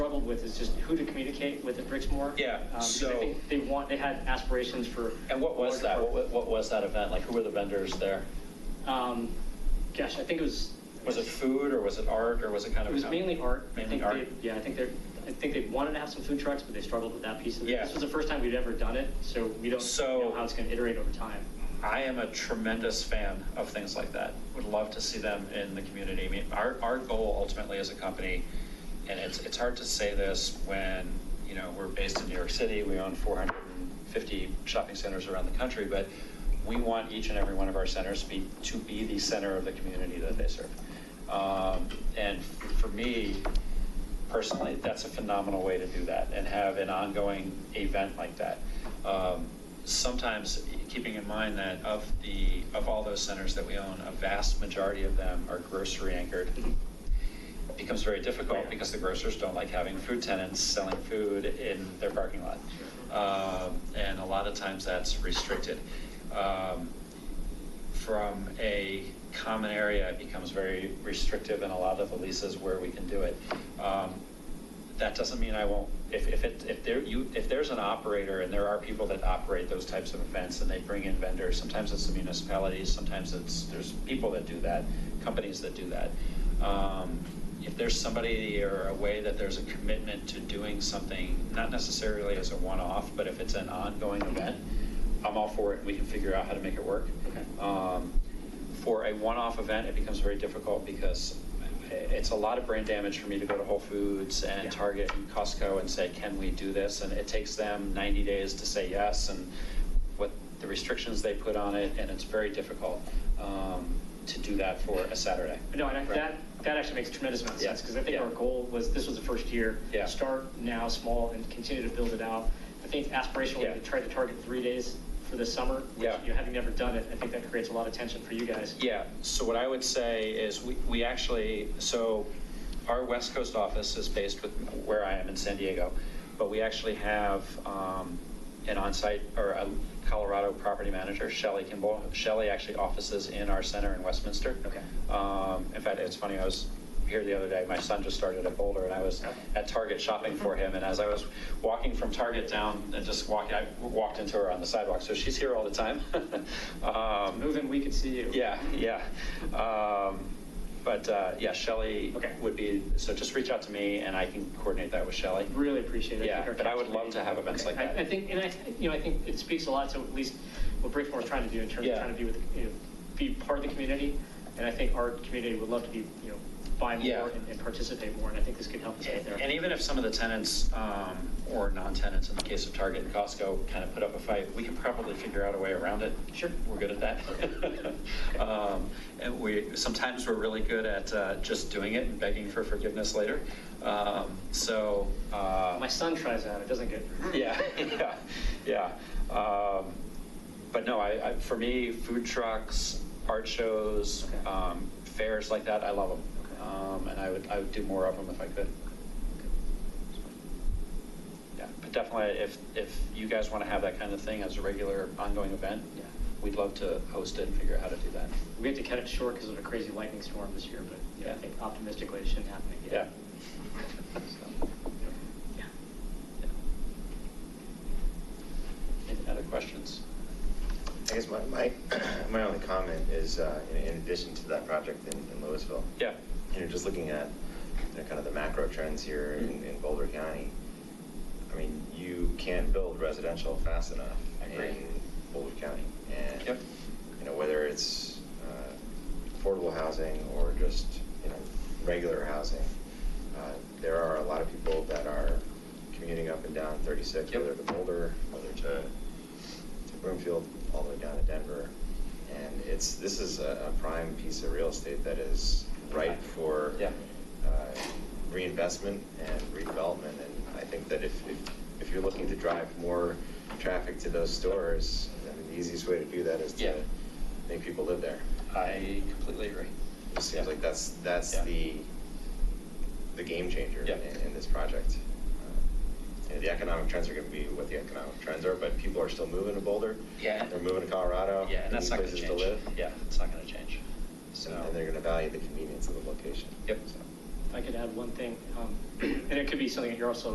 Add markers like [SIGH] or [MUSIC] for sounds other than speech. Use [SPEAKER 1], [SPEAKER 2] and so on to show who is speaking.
[SPEAKER 1] with is just who to communicate with at Brixmor.
[SPEAKER 2] Yeah,
[SPEAKER 1] Um, because
[SPEAKER 2] so-
[SPEAKER 1] I think they want, they had aspirations for.
[SPEAKER 2] And what was that? What, what was that event? Like, who were the vendors there?
[SPEAKER 1] Um, gosh, I think it was.
[SPEAKER 2] Was it food or was it art or was it kind
[SPEAKER 1] It
[SPEAKER 2] of?
[SPEAKER 1] was mainly art. I
[SPEAKER 2] Mainly
[SPEAKER 1] think
[SPEAKER 2] art.
[SPEAKER 1] they- Yeah, I think they're, I think they wanted to have some food trucks, but they struggled with that piece of it.
[SPEAKER 2] Yeah.
[SPEAKER 1] This was the first time we'd ever done it, so we don't
[SPEAKER 2] So-
[SPEAKER 1] know how it's going to iterate over time.
[SPEAKER 2] I am a tremendous fan of things like that. Would love to see them in the community. I mean, our, our goal ultimately as a company, and it's, it's hard to say this when, you know, we're based in New York City, we own 450 shopping centers around the country, but we want each and every one of our centers to be, to be the center of the community that they serve. Um, And for me, personally, that's a phenomenal way to do that and have an ongoing event like that. Um, Sometimes, keeping in mind that of the, of all those centers that we own, a vast majority of them are grocery anchored. It Becomes very difficult because the grocers don't like having food tenants selling food in their parking lot. Um, And a lot of times that's restricted. Um, from a common area, it becomes very restrictive in a lot of the leases where we can do it. Um, That doesn't mean I won't, if, if it, if there, you, if there's an operator and there are people that operate those types of events and they bring in vendors, sometimes it's the municipalities, sometimes it's, there's people that do that, companies that do that. Um, If there's somebody or a way that there's a commitment to doing something, not necessarily as a one-off, but if it's an ongoing event, I'm all for it. We can figure out how to make it work.
[SPEAKER 1] Okay.
[SPEAKER 2] Um, For a one-off event, it becomes very difficult because it's a lot of brain damage for me to go to Whole Foods
[SPEAKER 1] Yeah.
[SPEAKER 2] and Target and Costco and say, can we do this? And it takes them 90 days to say yes and what the restrictions they put on it, and it's very difficult um, to do that for a Saturday.
[SPEAKER 1] No, and I-
[SPEAKER 2] Right.
[SPEAKER 1] that, that actually makes a tremendous amount of
[SPEAKER 2] Yeah.
[SPEAKER 1] sense, because I think
[SPEAKER 2] Yeah.
[SPEAKER 1] our goal was, this was the first year.
[SPEAKER 2] Yeah.
[SPEAKER 1] Start now, small, and continue to build it out. I think aspirationally,
[SPEAKER 2] Yeah.
[SPEAKER 1] we tried to target three days for the summer, which,
[SPEAKER 2] Yeah.
[SPEAKER 1] you know, having never done it, I think that creates a lot of tension for you guys.
[SPEAKER 2] Yeah, so what I would say is we, we actually, so our West Coast office is based with where I am in San Diego, but we actually have um, an on-site or a Colorado property manager, Shelley Kimball. Shelley actually offices in our center in Westminster.
[SPEAKER 1] Okay.
[SPEAKER 2] Um, In fact, it's funny, I was here the other day, my son just started at Boulder, and I was at Target shopping for him, and as I was walking from Target down and just walking, I walked into her on the sidewalk, so she's here all the time. [LAUGHS] Um,
[SPEAKER 1] Moving, we could see you.
[SPEAKER 2] yeah, yeah. Um, But uh, yeah, Shelley
[SPEAKER 1] Okay.
[SPEAKER 2] would be, so just reach out to me and I can coordinate that with Shelley.
[SPEAKER 1] Really appreciate it. I
[SPEAKER 2] Yeah,
[SPEAKER 1] think our
[SPEAKER 2] but I would
[SPEAKER 1] council
[SPEAKER 2] love to
[SPEAKER 1] meeting-
[SPEAKER 2] have events
[SPEAKER 1] Okay.
[SPEAKER 2] like that.
[SPEAKER 1] I I think, and I, th- you know, I think it speaks a lot to at least what Bridgeport's trying to do in terms of
[SPEAKER 2] Yeah.
[SPEAKER 1] trying to be with, you know, be part of the community. And I think our community would love to be, you know, buy
[SPEAKER 2] Yeah.
[SPEAKER 1] more and and participate more, and I think this could help us get there.
[SPEAKER 2] And even if some of the tenants um, or non-tenants, in the case of Target and Costco, kind of put up a fight, we can probably figure out a way around it.
[SPEAKER 1] Sure.
[SPEAKER 2] We're good at that. [LAUGHS] Um, And we, sometimes we're really good at uh, just doing it and begging for forgiveness later. Um, So. uh,
[SPEAKER 1] My son tries that, it doesn't get. [LAUGHS]
[SPEAKER 2] Yeah, [LAUGHS] yeah, yeah. Um, But no, I, I- for me, food trucks, art shows,
[SPEAKER 1] Okay.
[SPEAKER 2] um, fairs like that, I love
[SPEAKER 1] Okay.
[SPEAKER 2] them. And I would, I would do more of them if I could. Yeah, but definitely, if, if you guys want to have that kind of thing as a regular ongoing event,
[SPEAKER 1] Yeah.
[SPEAKER 2] we'd love to host it and figure out how to do that.
[SPEAKER 1] We had to cut it short because of a crazy lightning storm this year, but yeah, I
[SPEAKER 2] Yeah.
[SPEAKER 1] think optimistically it shouldn't happen
[SPEAKER 2] Yeah.
[SPEAKER 1] again.
[SPEAKER 2] So,
[SPEAKER 1] Yeah.
[SPEAKER 2] Any other questions?
[SPEAKER 3] I guess my, my, [CLEARS THROAT] my only comment is, uh, in- in addition to that project in in Louisville.
[SPEAKER 2] Yeah.
[SPEAKER 3] You know, just looking at, you know, kind of the macro trends here
[SPEAKER 2] Mm-hmm.
[SPEAKER 3] in, in Boulder County. I mean, you can't build residential fast enough
[SPEAKER 2] I agree.
[SPEAKER 3] in Boulder County. And,
[SPEAKER 2] Yep.
[SPEAKER 3] you know, whether it's, uh, affordable housing or just, you know, regular housing, uh, there are a lot of people that are commuting up and down thirty-six,
[SPEAKER 2] Yep.
[SPEAKER 3] whether to Boulder, whether to to Broomfield, all the way down to Denver. And it's, this is a a prime piece of real estate that is ripe for
[SPEAKER 2] Yeah.
[SPEAKER 3] uh, reinvestment and redevelopment. And I think that if, if- if you're looking to drive more traffic to those stores, I mean, the easiest way to do that is
[SPEAKER 2] Yeah.
[SPEAKER 3] to make people live there.
[SPEAKER 2] I completely agree.
[SPEAKER 3] It seems like that's, that's
[SPEAKER 2] Yeah.
[SPEAKER 3] the, the game changer
[SPEAKER 2] Yeah.
[SPEAKER 3] in, in this project. Uh, you know, The economic trends are going to be what the economic trends are, but people are still moving to Boulder.
[SPEAKER 2] Yeah.
[SPEAKER 3] They're moving to Colorado.
[SPEAKER 2] Yeah, and
[SPEAKER 3] They
[SPEAKER 2] that's
[SPEAKER 3] need
[SPEAKER 2] not going Oh, to
[SPEAKER 3] places
[SPEAKER 2] change.
[SPEAKER 3] live.
[SPEAKER 2] Yeah, it's not going to change. So.
[SPEAKER 3] And they're going to value the convenience of the location.
[SPEAKER 2] Yep.
[SPEAKER 3] So,
[SPEAKER 1] If I could add one thing, um, [CLEARS THROAT] And it could be something that you're also